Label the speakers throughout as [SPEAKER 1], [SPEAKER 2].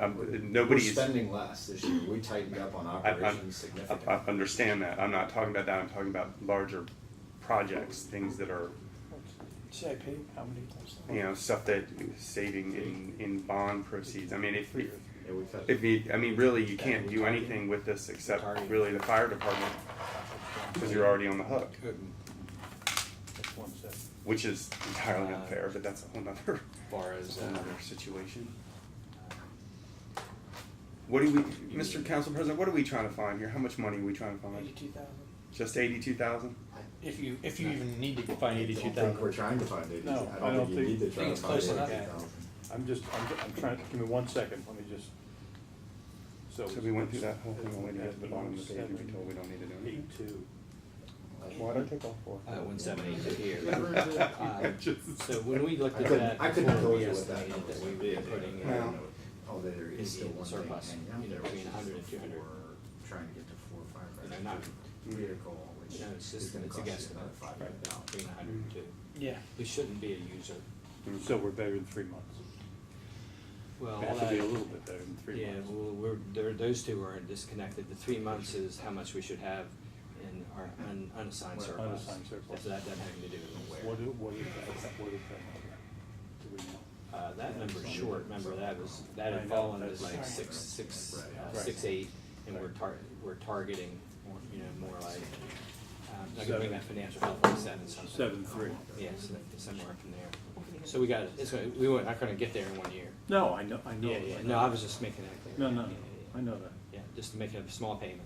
[SPEAKER 1] I'm,
[SPEAKER 2] We're
[SPEAKER 1] nobody's, I,
[SPEAKER 2] spending less this year. We tightened up on
[SPEAKER 1] Um, I- I'm-
[SPEAKER 2] operations
[SPEAKER 1] I
[SPEAKER 2] significantly.
[SPEAKER 1] understand that, I'm not talking about that, I'm talking about larger projects, things that are,
[SPEAKER 3] CIP, how many? times?
[SPEAKER 1] you know, stuff that saving in, in bond proceeds, I mean, if, if
[SPEAKER 2] Yeah, we cut-
[SPEAKER 1] If you, I mean, really, you can't do anything with this except really the fire department, because you're already on the hook,
[SPEAKER 4] Couldn't,
[SPEAKER 3] That's one set.
[SPEAKER 1] which is entirely unfair, but that's a whole nother,
[SPEAKER 4] far
[SPEAKER 1] that's
[SPEAKER 4] as,
[SPEAKER 1] a
[SPEAKER 4] uh,
[SPEAKER 1] whole nother situation. What do we, Mr. Council President, what are we trying to find here? How much money are we trying to find?
[SPEAKER 3] Eighty-two thousand.
[SPEAKER 1] Just eighty-two thousand?
[SPEAKER 5] If you, if you even need to
[SPEAKER 2] I
[SPEAKER 5] find
[SPEAKER 2] don't
[SPEAKER 5] eighty-two
[SPEAKER 2] think we're
[SPEAKER 5] thousand,
[SPEAKER 2] trying to find eighty,
[SPEAKER 3] No,
[SPEAKER 2] I don't think you need to try to
[SPEAKER 5] think it's
[SPEAKER 2] find eighty
[SPEAKER 5] close enough.
[SPEAKER 2] thousand.
[SPEAKER 3] I'm just, I'm, ju- I'm trying, give me one second, let me just.
[SPEAKER 1] So we went through that whole thing all the way down to the bottom of the page and we told we don't need to do anything.
[SPEAKER 3] Eight-two.
[SPEAKER 1] Why'd I take all four?
[SPEAKER 5] uh, one seventy a year.
[SPEAKER 1] I just-
[SPEAKER 5] So when we looked
[SPEAKER 2] I
[SPEAKER 5] at
[SPEAKER 2] couldn't,
[SPEAKER 5] that
[SPEAKER 2] I couldn't
[SPEAKER 5] before,
[SPEAKER 2] tell
[SPEAKER 5] we
[SPEAKER 2] you what that
[SPEAKER 5] estimated
[SPEAKER 2] number
[SPEAKER 5] that we
[SPEAKER 2] would
[SPEAKER 5] would be
[SPEAKER 2] be.
[SPEAKER 5] putting
[SPEAKER 2] I
[SPEAKER 5] in
[SPEAKER 2] don't know. Oh, there is
[SPEAKER 5] is
[SPEAKER 2] still
[SPEAKER 5] in
[SPEAKER 2] one thing
[SPEAKER 5] surplus,
[SPEAKER 2] hanging out
[SPEAKER 5] you
[SPEAKER 2] there,
[SPEAKER 5] know,
[SPEAKER 2] which
[SPEAKER 5] between
[SPEAKER 2] is for
[SPEAKER 5] 100 and 200.
[SPEAKER 2] trying to get to four
[SPEAKER 5] You know,
[SPEAKER 2] five
[SPEAKER 5] not-
[SPEAKER 2] five. Vehicle, which
[SPEAKER 5] No, it's
[SPEAKER 2] is
[SPEAKER 5] just,
[SPEAKER 2] gonna
[SPEAKER 5] it's a
[SPEAKER 2] cost
[SPEAKER 5] guess,
[SPEAKER 2] you another five
[SPEAKER 5] right
[SPEAKER 2] hundred
[SPEAKER 5] now,
[SPEAKER 2] dollars.
[SPEAKER 5] being a hundred and two.
[SPEAKER 3] Yeah.
[SPEAKER 5] We shouldn't be a user.
[SPEAKER 1] Mm,
[SPEAKER 3] So we're better than three months.
[SPEAKER 5] Well,
[SPEAKER 3] We have to be a little bit better than three
[SPEAKER 5] Yeah,
[SPEAKER 3] months.
[SPEAKER 5] well, we're, there, those two are disconnected. The three months is how much we should have in our un- unassigned
[SPEAKER 2] Well,
[SPEAKER 5] surplus.
[SPEAKER 3] unassigned surplus.
[SPEAKER 5] So that doesn't have anything to do with where.
[SPEAKER 3] What, do- what is that, what is that? Do we know?
[SPEAKER 5] Uh, that number's short, remember, that was, that
[SPEAKER 3] I
[SPEAKER 5] had
[SPEAKER 3] know,
[SPEAKER 5] fallen
[SPEAKER 3] that's
[SPEAKER 5] as like
[SPEAKER 3] right.
[SPEAKER 5] six, six,
[SPEAKER 2] Right.
[SPEAKER 3] Right.
[SPEAKER 5] uh, six, eight, and we're tar- we're targeting, more, you know, more like, um, I can
[SPEAKER 3] Seven.
[SPEAKER 5] bring that financial help like seven something.
[SPEAKER 3] Seven-three.
[SPEAKER 5] Yeah, so somewhere from there. So we got, it's gonna, we weren't, not gonna get there in one year.
[SPEAKER 3] No, I know, I know.
[SPEAKER 5] Yeah, yeah, no, I was just making that clear.
[SPEAKER 3] No, no,
[SPEAKER 5] Yeah,
[SPEAKER 3] no,
[SPEAKER 5] yeah,
[SPEAKER 3] I know that.
[SPEAKER 5] Yeah, Yeah, just to make a small payment.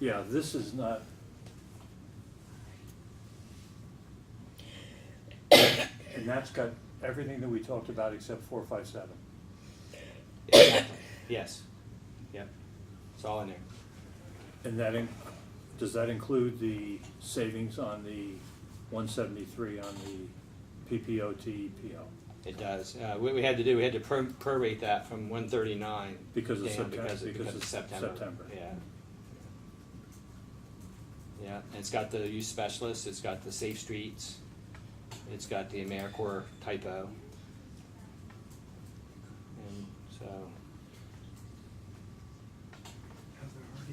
[SPEAKER 3] Yeah, this is not. And that's got everything that we talked about except four, five, seven.
[SPEAKER 5] Exactly. Yes, yep, it's all in there.
[SPEAKER 3] And that, in- does that include the savings on the one seventy-three on the PPO TEPO?
[SPEAKER 5] It does. Uh, what we had to do, we had to pro- prorate that from one thirty-nine.
[SPEAKER 3] Because of Septem-
[SPEAKER 5] Because of,
[SPEAKER 3] because
[SPEAKER 5] because
[SPEAKER 3] of
[SPEAKER 5] of September.
[SPEAKER 3] September.
[SPEAKER 5] Yeah. Yeah, and it's got the youth specialists, it's got the safe streets, it's got the AmeriCorps typo. And so,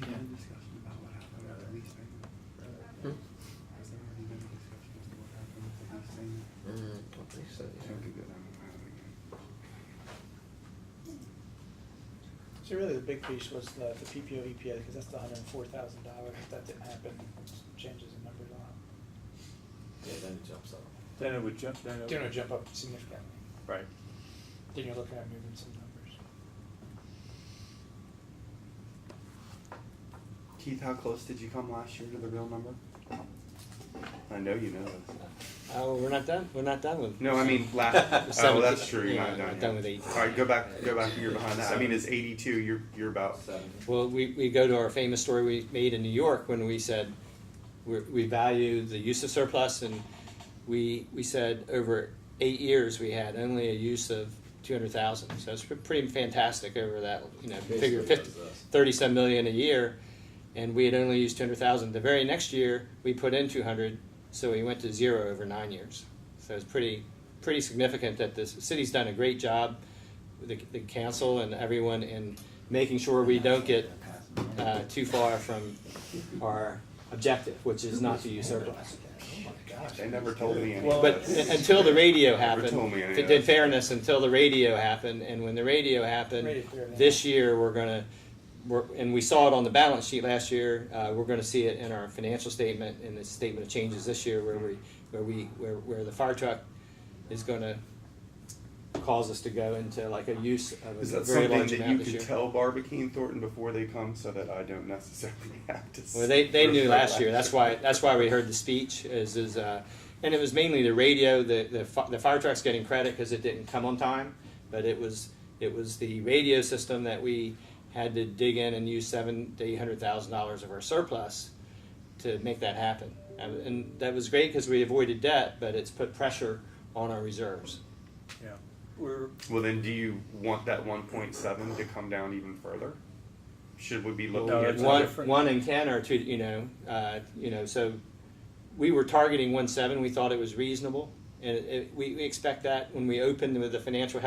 [SPEAKER 1] Has there already been a discussion about what happened with the lease payment? Has there already been a discussion as to what happened with the lease payment? Okay, good, I'm out of it.
[SPEAKER 6] So really, the big piece was the, the PPO EPA, because that's the hundred and four thousand dollars, if that didn't happen, changes in numbers a lot.
[SPEAKER 2] Yeah, then it jumps up.
[SPEAKER 3] Then it would jump, then it
[SPEAKER 6] They're gonna
[SPEAKER 3] would.
[SPEAKER 6] jump up significantly,
[SPEAKER 3] Right.
[SPEAKER 6] then you're looking at moving some numbers.
[SPEAKER 1] Keith, how close did you come last year to the real number? I know you know this.
[SPEAKER 5] oh, we're not done, we're not done with.
[SPEAKER 1] No, I mean last. oh,
[SPEAKER 5] Seven-
[SPEAKER 1] that's true. You're
[SPEAKER 5] yeah,
[SPEAKER 1] not done.
[SPEAKER 5] I'm
[SPEAKER 1] yet.
[SPEAKER 5] done with eight.
[SPEAKER 1] All right, go back. Go back. You're behind that. I mean, it's 82. You're you're about.
[SPEAKER 2] Seven.
[SPEAKER 5] Well, we, we go to our famous story we made in New York when we said we're, we value the use of surplus, and we we said over eight years we had only a use of two hundred thousand. So it's pre- pretty fantastic over that you know figure
[SPEAKER 2] Basically
[SPEAKER 5] fifty,
[SPEAKER 2] does this.
[SPEAKER 5] thirty some million a year, and we had only used two hundred thousand. The very next year we put in two hundred, so we went to zero over nine years. So it's pretty pretty significant that this the city's done a great job, with the, the council and everyone in making sure we don't get uh, too far from our objective, which is not to use surplus.
[SPEAKER 2] oh
[SPEAKER 1] They never told me anything.
[SPEAKER 5] But u- until the radio happened,
[SPEAKER 1] told me any
[SPEAKER 5] to-
[SPEAKER 1] of
[SPEAKER 5] in
[SPEAKER 1] that.
[SPEAKER 5] fairness, until the radio happened, and when the radio happened,
[SPEAKER 6] Radio cleared it
[SPEAKER 5] this year, we're gonna, we're, and we saw it on the balance sheet last year, uh, we're gonna see it in our financial statement, in the statement of changes this year, where we, where we, where, where the fire truck is gonna cause us to go into like a use of
[SPEAKER 1] Is
[SPEAKER 5] a
[SPEAKER 1] that
[SPEAKER 5] very
[SPEAKER 1] something
[SPEAKER 5] large
[SPEAKER 1] that you
[SPEAKER 5] amount this
[SPEAKER 1] could
[SPEAKER 5] year.
[SPEAKER 1] tell Barbicane and Thornton before they come, so that I don't necessarily have to?
[SPEAKER 5] Well, they, they knew
[SPEAKER 1] refer
[SPEAKER 5] last year. That's why
[SPEAKER 1] year.
[SPEAKER 5] that's why we heard the speech. Is is uh, and it was mainly the radio. The the, fi- the fire truck's getting credit because it didn't come on time, but it was it was the radio system that we had to dig in and use seven to eight hundred thousand dollars of our surplus to make that happen. And, and that was great because we avoided debt, but it's put pressure on our reserves.
[SPEAKER 3] Yeah, we're,
[SPEAKER 1] Well, then, do you want that 1.7 to come down even further? Should we be looking
[SPEAKER 3] No,
[SPEAKER 1] at
[SPEAKER 3] that's a
[SPEAKER 5] one,
[SPEAKER 3] different-
[SPEAKER 5] one and ten are two, you know, uh, you know, so we were targeting one seven, we thought it was reasonable. And it, it, we, we expect that when we opened with the financial health